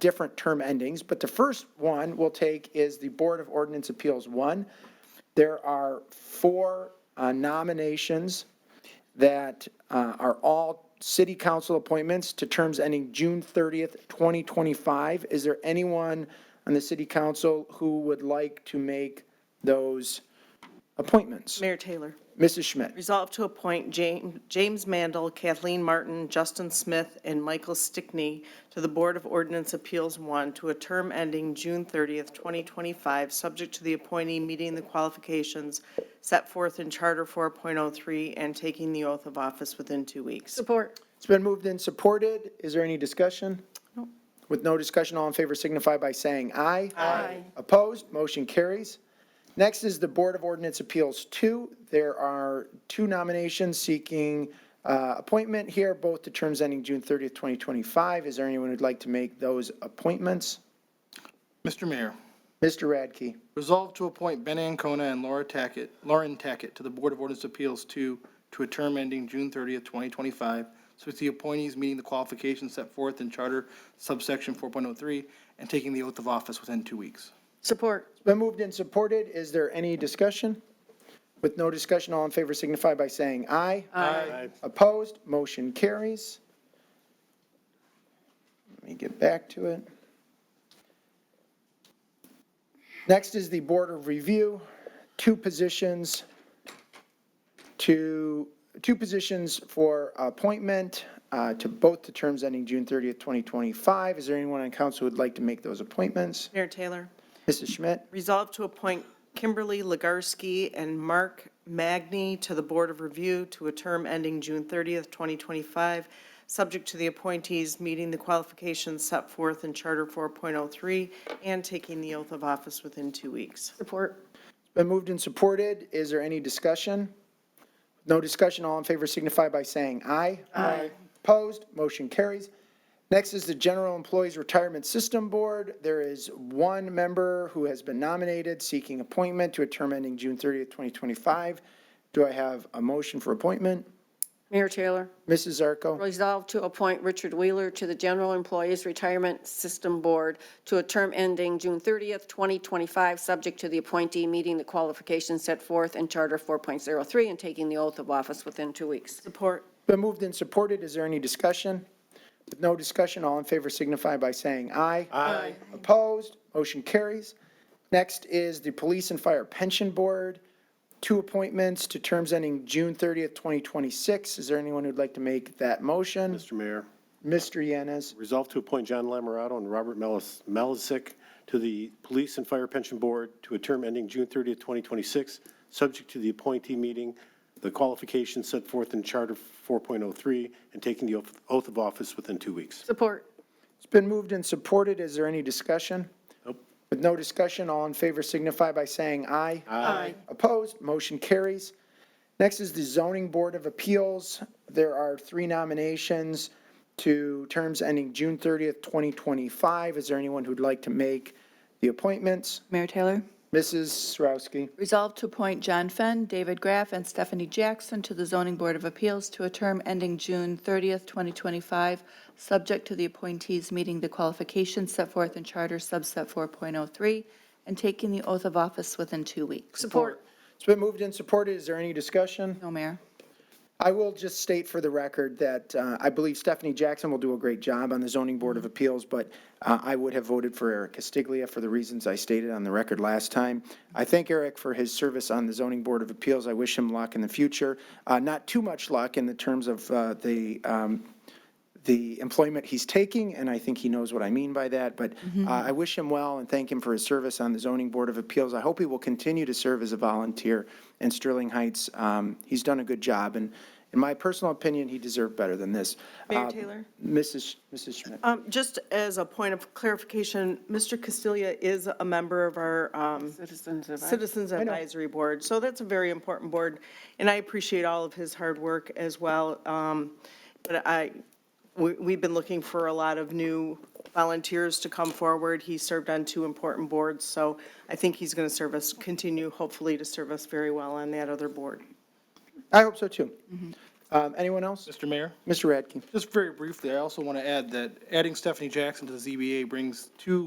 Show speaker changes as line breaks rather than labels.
different term endings, but the first one we'll take is the Board of Ordinance Appeals one. There are four uh, nominations that uh, are all city council appointments to terms ending June 30th, 2025. Is there anyone on the city council who would like to make those appointments?
Mayor Taylor,
Mrs. Schmidt?
resolve to appoint James, James Mandel, Kathleen Martin, Justin Smith, and Michael Stickney to the Board of Ordinance Appeals One to a term ending June thirtieth, twenty twenty-five, subject to the appointee meeting the qualifications set forth in Charter four point oh three and taking the oath of office within two weeks.
Support.
It's been moved and supported. Is there any discussion? With no discussion, all in favor signify by saying aye. Aye. Opposed, motion carries. Next is the Board of Ordinance Appeals 2. There are two nominations seeking uh, appointment here, both to terms ending June 30th, 2025. Is there anyone who'd like to make those appointments?
Mr. Mayor,
Mr. Radke,
resolve to appoint Ben Ancona and Laura Tackett, Lauren Tackett to the Board of Ordinance Appeals to, to a term ending June 30th, 2025, so with the appointees meeting the qualifications set forth in Charter subsection 4.03 and taking the oath of office within two weeks.
Support.
it's been moved and supported. Is there any discussion? With no discussion, all in favor signify by saying aye.
Aye.
Opposed, motion carries. Let me get back to it. Next is the Board of Review, two positions, two, two positions for appointment uh, to both the terms ending June 30th, 2025. Is there anyone on council who would like to make those appointments?
Mayor Taylor,
Mrs. Schmidt?
Resolved to appoint Kimberly Legarsky and Mark Magny to the Board of Review to a term ending June 30th, 2025, subject to the appointees meeting the qualifications set forth in Charter 4.03 and taking the oath of office within two weeks.
Support.
Been moved and supported. Is there any discussion? No discussion, all in favor signify by saying aye. Aye. Opposed, motion carries. Next is the General Employees Retirement System Board. There is one member who has been nominated seeking appointment to a term ending June 30th, 2025. Do I have a motion for appointment?
Mayor Taylor,
Mrs. Zarco,
resolve to appoint Richard Wheeler to the General Employees Retirement System Board to a term ending June 30th, 2025, subject to the appointee meeting the qualifications set forth in Charter 4.03 and taking the oath of office within two weeks.
Support.
Been moved and supported. Is there any discussion? With no discussion, all in favor signify by saying aye. Aye. Opposed, motion carries. Next is the Police and Fire Pension Board, two appointments to terms ending June 30th, 2026. Is there anyone who'd like to make that motion?
Mr. Mayor,
Mr. Yanez,
resolve to appoint John Lamorato and Robert Melis- Melisick to the Police and Fire Pension Board to a term ending June 30th, 2026, subject to the appointee meeting, the qualifications set forth in Charter 4.03, and taking the oath- oath of office within two weeks.
Support.
it's been moved and supported. Is there any discussion?
Nope.
With no discussion, all in favor signify by saying aye.
Aye.
Opposed, motion carries. Next is the Zoning Board of Appeals. There are three nominations to terms ending June 30th, 2025. Is there anyone who'd like to make the appointments?
Mayor Taylor,
Mrs. Sarowski,
resolved to appoint John Fenn, David Graff, and Stephanie Jackson to the Zoning Board of Appeals to a term ending June 30th, 2025, subject to the appointees meeting the qualifications set forth in Charter subset 4.03 and taking the oath of office within two weeks.
Support.
it's been moved and supported. Is there any discussion?
No, Mayor.
I will just state for the record that uh, I believe Stephanie Jackson will do a great job on the Zoning Board of Appeals, but uh, I would have voted for Eric Castiglia for the reasons I stated on the record last time. I thank Eric for his service on the Zoning Board of Appeals. I wish him luck in the future. Uh, Not too much luck in the terms of uh, the um, the employment he's taking, and I think he knows what I mean by that, but uh, I wish him well and thank him for his service on the Zoning Board of Appeals. I hope he will continue to serve as a volunteer in Sterling Heights. Um, He's done a good job, and in my personal opinion, he deserved better than this.
Mayor
Uh,
Taylor?
Mrs. Mrs. Schmidt.
Um, Just as a point of clarification, Mr. Castilla is a member of our um,
Citizens
Citizens Advisory Board, so that's a very important board, and I appreciate all of his hard work as well. Um, But I, we, we've been looking for a lot of new volunteers to come forward. He served on two important boards, so I think he's going to serve us, continue hopefully to serve us very well on that other board.
I hope so, too. Um, Anyone else?
Mr. Mayor?
Mr. Radke?
Just very briefly, I also want to add that adding Stephanie Jackson to the ZBA brings two